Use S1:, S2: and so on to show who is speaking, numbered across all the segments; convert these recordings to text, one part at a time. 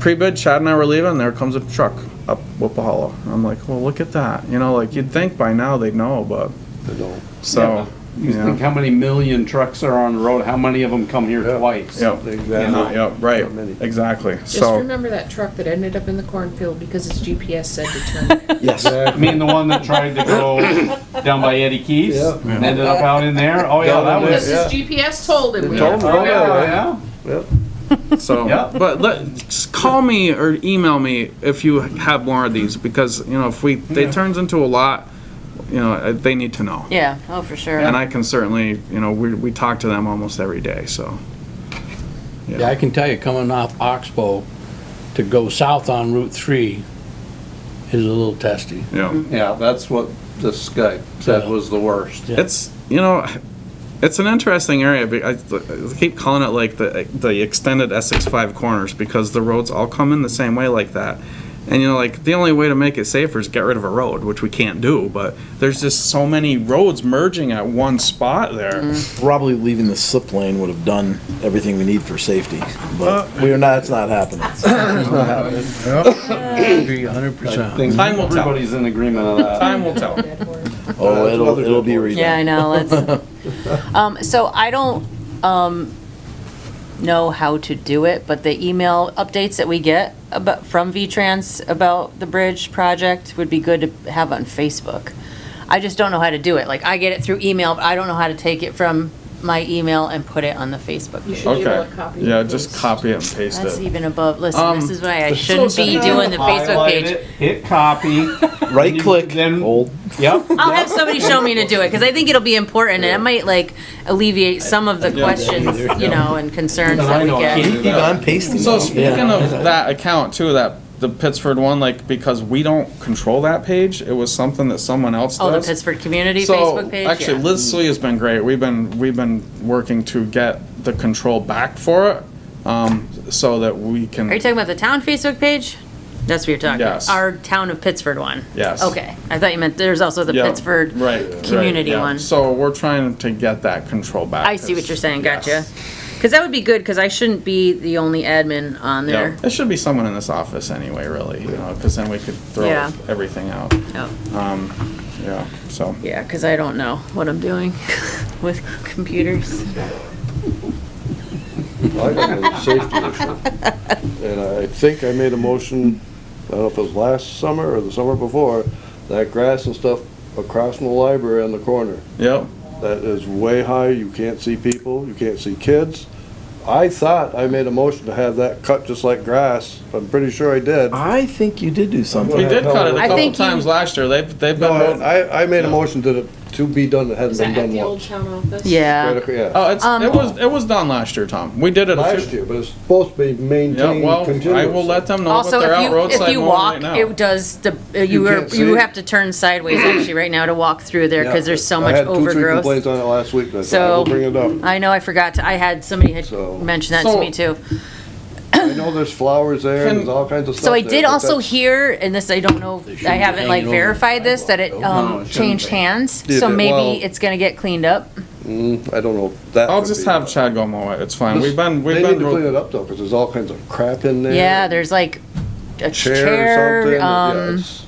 S1: pre-bid, Chad and I were leaving, there comes a truck up Whippahala. I'm like, well, look at that, you know, like, you'd think by now they'd know, but,
S2: They don't.
S1: so,
S3: You
S1: yeah.
S3: think how many million trucks are on the road, how many of them come here
S2: Yeah.
S3: twice?
S1: Yep,
S2: Exactly.
S1: yep, right,
S2: Not many.
S1: exactly,
S4: Just
S1: so,
S4: remember that truck that ended up in the cornfield because its GPS said to turn.
S5: Yes.
S3: I mean, the one that tried to go down by Eddie Keith's,
S2: Yeah.
S3: and ended up out in there, oh yeah,
S2: Down
S3: that
S2: in
S3: was.
S4: Because
S2: Yeah.
S4: his GPS told him. we
S2: Told him.
S4: had-
S3: Oh, yeah,
S2: Yeah.
S3: yeah.
S2: Yep.
S1: so,
S3: Yeah.
S1: but let, just call me or email me if you have more of these, because, you know, if we, they turns into a lot, you know, uh, they need to know.
S6: Yeah, oh, for sure.
S1: And I can certainly, you know, we, we talk to them almost every day, so.
S7: Yeah, I can tell you, coming off Oxbow to go south on Route 3 is a little testy.
S6: Mm-hmm.
S1: Yeah,
S3: Yeah, that's what this guy said
S7: Yeah.
S3: was the worst.
S7: Yeah.
S1: it's, you know, it's an interesting area, be- I, I keep calling it like the, the extended Essex Five Corners, because the roads all come in the same way like that. And you know, like, the only way to make it safer is get rid of a road, which we can't do, but there's just so many roads merging at one spot there.
S6: Mm-hmm.
S5: Probably leaving the slip lane would have done everything we need for safety, but we are not, it's not happening.
S7: Agree a hundred
S3: I
S7: percent.
S3: think
S1: Time will tell.
S3: everybody's in agreement on that.
S1: Time will tell.
S4: That horse.
S5: Oh, it'll, it'll be redone.
S6: Yeah, I know, let's, um, so I don't, um, know how to do it, but the email updates that we get about, from V-Trans about the bridge project would be good to have on Facebook. I just don't know how to do it, like, I get it through email, but I don't know how to take it from my email and put it on the Facebook
S4: You
S6: page.
S4: should be able
S1: Okay,
S4: to copy.
S1: yeah,
S4: and
S1: just
S4: paste.
S1: copy it and paste
S6: That's
S1: it.
S6: even above, listen,
S1: Um,
S6: this is why I
S1: so
S6: shouldn't be
S1: sorry.
S6: doing the Facebook
S3: Highlight
S6: page.
S3: it, Hit copy,
S5: Right click,
S3: Then-
S5: hold.
S3: yep.
S6: I'll have somebody show me to do it, because I think it'll be important, and it might like alleviate some of the questions, you know, and concerns that we get.
S5: Keep on pasting.
S1: So
S5: now.
S1: speaking of that account too, that the Pittsford one, like because we don't control that page, it was something that someone else
S6: Oh, the
S1: does.
S6: Pittsburgh Community
S1: so
S6: Facebook page?
S1: actually,
S6: Yeah.
S1: Liz Slee has been great. We've been we've been working to get the control back for it, um, so that we can.
S6: Are you talking about the town Facebook page? That's what you're talking about?
S1: Yes.
S6: Our town of Pittsburgh one?
S1: Yes.
S6: Okay, I thought you meant, there's also the
S1: Yeah,
S6: Pittsburgh
S1: right, right,
S6: community
S1: yeah.
S6: one.
S1: So we're trying to get that control back.
S6: I see what you're saying, gotcha.
S1: Yes.
S6: Because that would be good, because I shouldn't be the only admin on
S1: Yeah,
S6: there.
S1: there should be someone in this office anyway, really, you know, because then we could throw
S6: Yeah.
S1: everything out. Um,
S6: Oh.
S1: Yeah, so.
S6: Yeah, because I don't know what I'm doing with computers.
S2: I got a safety issue. And I think I made a motion, I don't know if it was last summer or the summer before, that grass and stuff across from the library on the corner,
S1: Yep.
S2: that is way high, you can't see people, you can't see kids. I thought I made a motion to have that cut just like grass, I'm pretty sure I did.
S4: Uh,
S5: I think you did do
S1: We
S5: something.
S1: did cut it a
S2: I
S1: couple
S6: think you-
S1: times last year. They've, they've
S2: No,
S1: been.
S2: I, I made a motion to, the- to be done that
S4: Is
S2: hadn't been
S4: that at
S2: done
S4: the old
S2: once.
S4: town office?
S6: Yeah.
S2: Right, Yeah,
S1: Oh, it's,
S6: Um,
S1: it was, it was done last year, Tom. We did it a
S2: last
S1: few.
S2: year, but it's supposed to be
S1: Yeah,
S2: maintained
S1: well, I will
S2: continuously.
S1: let them know that
S6: Also,
S1: they're
S6: if
S1: out
S6: you, if
S1: roadside
S6: you
S1: mowing right
S6: walk,
S1: now.
S6: it does, the uh, you
S2: You
S6: are,
S2: can't
S6: you
S2: see.
S6: have to turn sideways actually right now to walk through there, because there's so
S2: I
S6: much
S2: had two, three
S6: overgrowth.
S2: Complaints on it last week, but I thought I
S6: So-
S2: will bring it up.
S6: I know, I forgot to, I had, somebody had
S2: So-
S6: mentioned that to
S1: So-
S6: me too.
S2: I know there's flowers there and there's all kinds of stuff.
S6: So I
S2: there,
S6: did
S2: but
S6: also
S2: that's-
S6: hear, and this, I don't know, I
S7: shouldn't
S6: haven't
S7: hang
S6: like
S7: it over the
S6: verified this, that it,
S3: No, it
S6: um,
S3: shouldn't
S6: changed
S3: be.
S6: hands,
S2: Did
S6: so
S2: it- well-
S6: maybe it's gonna get cleaned up.
S2: Mm, I don't know. if That.
S1: I'll
S2: would
S1: just
S2: be-
S1: have Chad go mow it. It's fine.
S2: This-
S1: We've been, we've
S2: They need to clean
S1: been,
S2: it up though, because there's all kinds of crap in there.
S6: Yeah, there's like
S2: Chair or
S6: a
S2: something.
S6: chair,
S2: yeah,
S6: um,
S2: it's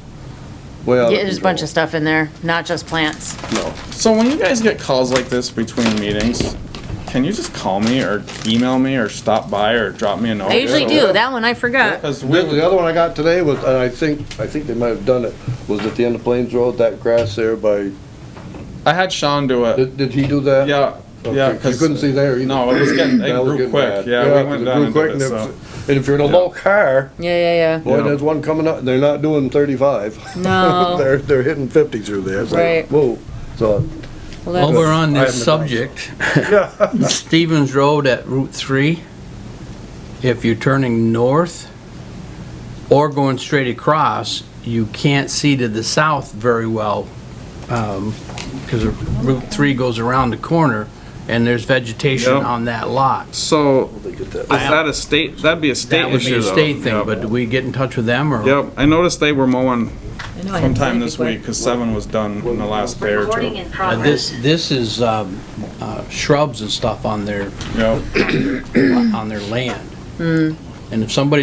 S2: Way out
S6: yeah,
S2: of
S6: there's a bunch of
S2: control.
S6: stuff in there, not just plants.
S2: No.
S1: so when you guys get calls like this between meetings, can you just call me or email me or stop by or drop me a note?
S6: I usually
S2: Oh, yeah.
S6: do, that one I forgot.
S1: Because
S2: The the
S1: we,
S2: other one I got today was, and I think, I think they might have done it, was at the end of Plains Road, that grass there by,
S1: I had Sean do it.
S2: did, did he do that?
S1: Yeah,
S2: Okay,
S1: yeah,
S2: 'cause You couldn't
S1: because,
S2: see there either.
S1: no, it was getting, it
S2: That was
S1: grew
S2: getting
S1: quick.
S2: bad.
S1: Yeah, we
S2: 'cause
S1: went
S2: it
S1: down
S2: grew
S1: and
S2: quick
S1: did
S2: and
S1: it,
S2: if-
S1: so.
S2: And if you're in a low car,
S6: Yeah, yeah,
S2: boy,
S1: Yeah.
S2: there's one coming up, they're not doing thirty-five.
S6: yeah, no.
S2: They're, they're hitting fifty through there. It's like,
S6: Right.
S2: Whoa, so,
S6: Well,
S7: While
S6: that's-
S7: we're on
S2: I have
S7: this
S2: the-
S7: subject, Stevens Road at Route 3, if you're turning north or going straight across, you can't see to the south very well, because Route 3 goes around the corner, and there's vegetation
S1: Yep.
S7: on that lot.
S1: So
S2: they get that.
S1: is that a state, that'd be a state
S7: That would be
S1: issue
S7: a
S1: though.
S7: state thing,
S1: Yep.
S7: but do we get in touch with them, or?
S1: Yep, I noticed they were mowing
S4: I know, I had
S1: sometime
S4: something
S1: this
S4: quick.
S1: week, because seven was done in the last day or two.
S7: Uh, This, this is um, uh, shrubs and stuff on their,
S1: Yep.
S7: on their land. And if somebody